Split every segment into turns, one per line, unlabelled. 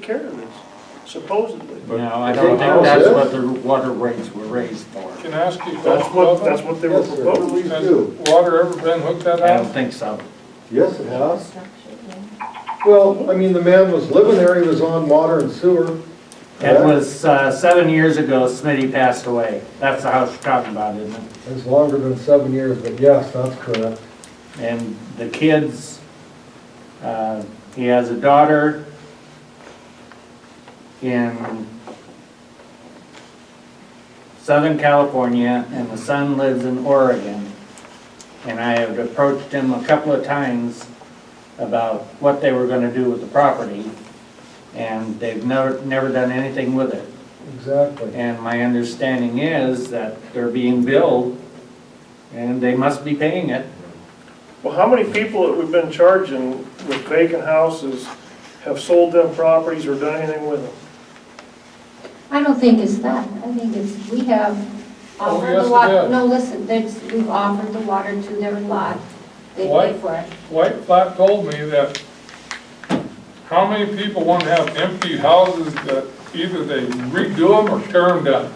care of this, supposedly.
No, I don't think that's what the water rates were raised for.
Can I ask you a
That's
question?
what, that's what they were
Yes, sir.
proposing.
Please do.
Has water ever been hooked that
I don't
out?
think so.
Yes, it has. Well, I mean, the man was living there, he was on water and sewer.
It was uh, seven years ago Smitty passed away. That's the house you're talking about, isn't it?
It's longer than seven years, but yes, that's correct.
And the kids, uh, he has a daughter in Southern California, and the son lives in Oregon. And I have approached him a couple of times about what they were gonna do with the property, and they've never, never done anything with it.
Exactly.
And my understanding is that they're being billed, and they must be paying it.
Well, how many people that we've been charging with vacant houses have sold them properties or done anything with them?
I don't think it's that. I think it's, we have
Oh,
offered
yes,
the
it
water.
is.
No, listen, there's, we've offered the water to their lot. They
Why?
pay for it.
White Flat told me that how many people want to have empty houses that either they redo them or tear them down?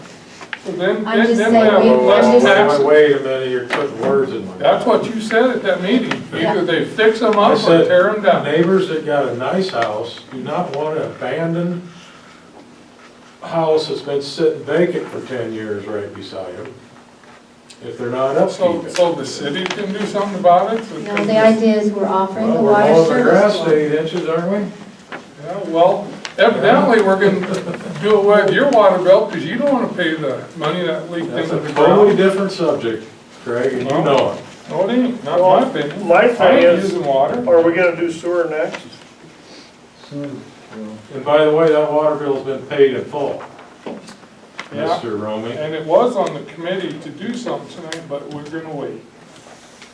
So Then,
I'm
then
just
then we have
saying, we- I'm
less
just-
taxes.
Wait a minute, you're putting words in my
That's
mouth.
what you said at that meeting.
Yeah.
Either they fix them
I
up or
said,
tear them down.
Neighbors that got a nice house do not want to abandon a house that's been sitting vacant for ten years right beside them, if they're not
So,
upkeeping.
so the city can do something about it? so
No,
can
the
just-
idea is we're offering the
Well,
water
We're mowing the
service.
grass
for it.
eight inches, aren't
Yeah, well, evidently, we're gonna do away with your water bill, because you don't wanna pay the money that
we?
leaked
That's
into
a
the
totally
ground.
different subject, Craig, and you know it.
No, it ain't, not my opinion.
My
I
thing
ain't
is,
using water.
are we gonna do sewer next?
Sewer, well,
And by the way, that water bill's been paid in full,
Yeah.
Mr. Romy.
And it was on the committee to do something tonight, but we're gonna wait.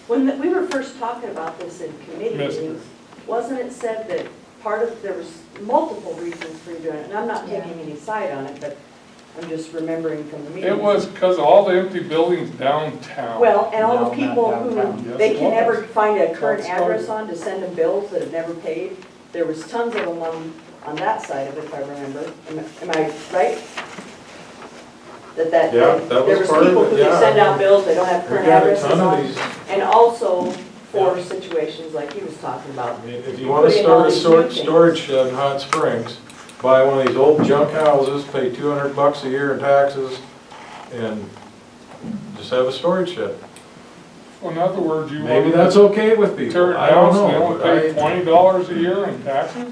When the- we were first talking about this in committee
Yes.
meetings, wasn't it said that part of, there was multiple reasons for you doing it? And I'm not taking any side on it, but I'm just remembering from the meeting.
It was because all the empty buildings downtown.
Well, and all the
No, not
people
downtown.
who,
Yes,
they
it
can never
was.
find a current
That's right.
address on to send them bills that have never paid. There was tons of them on, on that side of it, if I remember. Am I- am I right? That that,
Yeah, that was
there was
part of
people
it,
who
yeah.
can send out bills, they don't have
We
current
got a
addresses
ton
on.
of these,
And also for situations like he was talking about.
I mean, if you want to start a sort, storage shed in Hot Springs, buy one of these old junk houses, pay two hundred bucks a year in taxes, and just have a storage shed.
In other words, you
Maybe
want
that's okay with
to tear
people,
it
I
down,
don't
so they only pay
know. but I-
twenty dollars a year in taxes?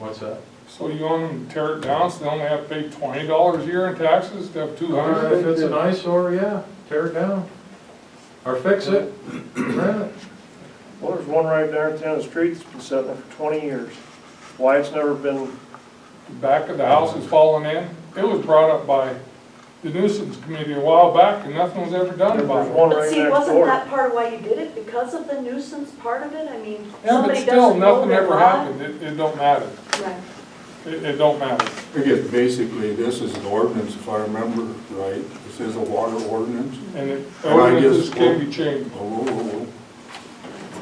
What's that?
So you want them to tear it down, so they only have to pay twenty dollars a year in taxes to have two
Or
hundred?
Uh, If it's an eyesore, yeah, tear it down, or fix it, rent it.
Well, there's one right there at the end of the street that's been sitting there for twenty years. Why it's never been,
back of the house is falling in. It was brought up by the nuisance committee a while back, and nothing was ever done
there's
about it.
one
But
right
see,
next
wasn't
door.
that part of why you did it? Because of the nuisance part of it? I mean,
Yeah, but
somebody
still,
doesn't mow
nothing
their
ever
lawn.
happened, it, it don't matter,
Right.
it, it don't matter.
I guess basically this is an ordinance, if I remember right, this is a water ordinance.
And it,
Well, I guess-
ordinances can be changed.
Oh, oh, oh, oh.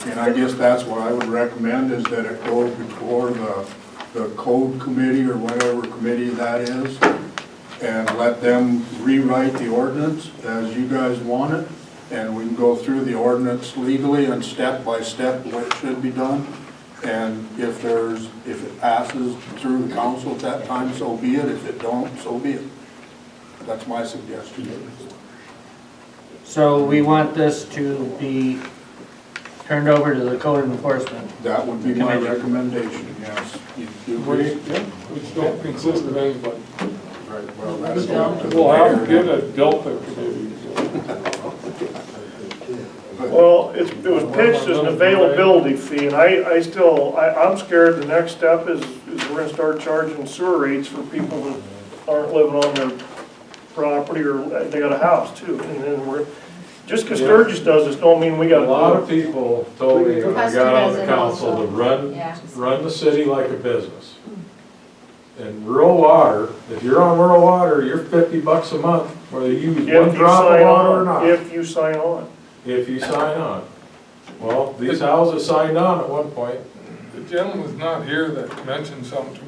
And I guess that's what I would recommend is that it goes before the, the code committee or whatever committee that is, and let them rewrite the ordinance as you guys want it, and we can go through the ordinance legally and step by step what should be done. And if there's, if it passes through the council at that time, so be it. If it don't, so be it. That's my suggestion.
So we want this to be turned over to the code enforcement.
That would be my
Committee.
recommendation, yes. You- you
We,
agree?
which don't consist of anybody.
Right, well, that's up to the
We'll have to get
mayor.
a Delta committee.
Well, it's, it was pitched as an availability fee, and I, I still, I, I'm scared the next step is, is we're gonna start charging sewer rates for people that aren't living on their property or uh, they got a house too, and then we're, just 'cause Sturgis does this, don't mean we
A
gotta.
lot of people told me when I got on the council to run,
Yeah.
run the city like a business. And rural water, if you're on rural water, you're fifty bucks a month, whether you use
If
one
you
drop of
sign
water or
on,
not,
if you sign on.
if you sign on. Well, these houses signed on at one point,
the gentleman's not here that mentioned something to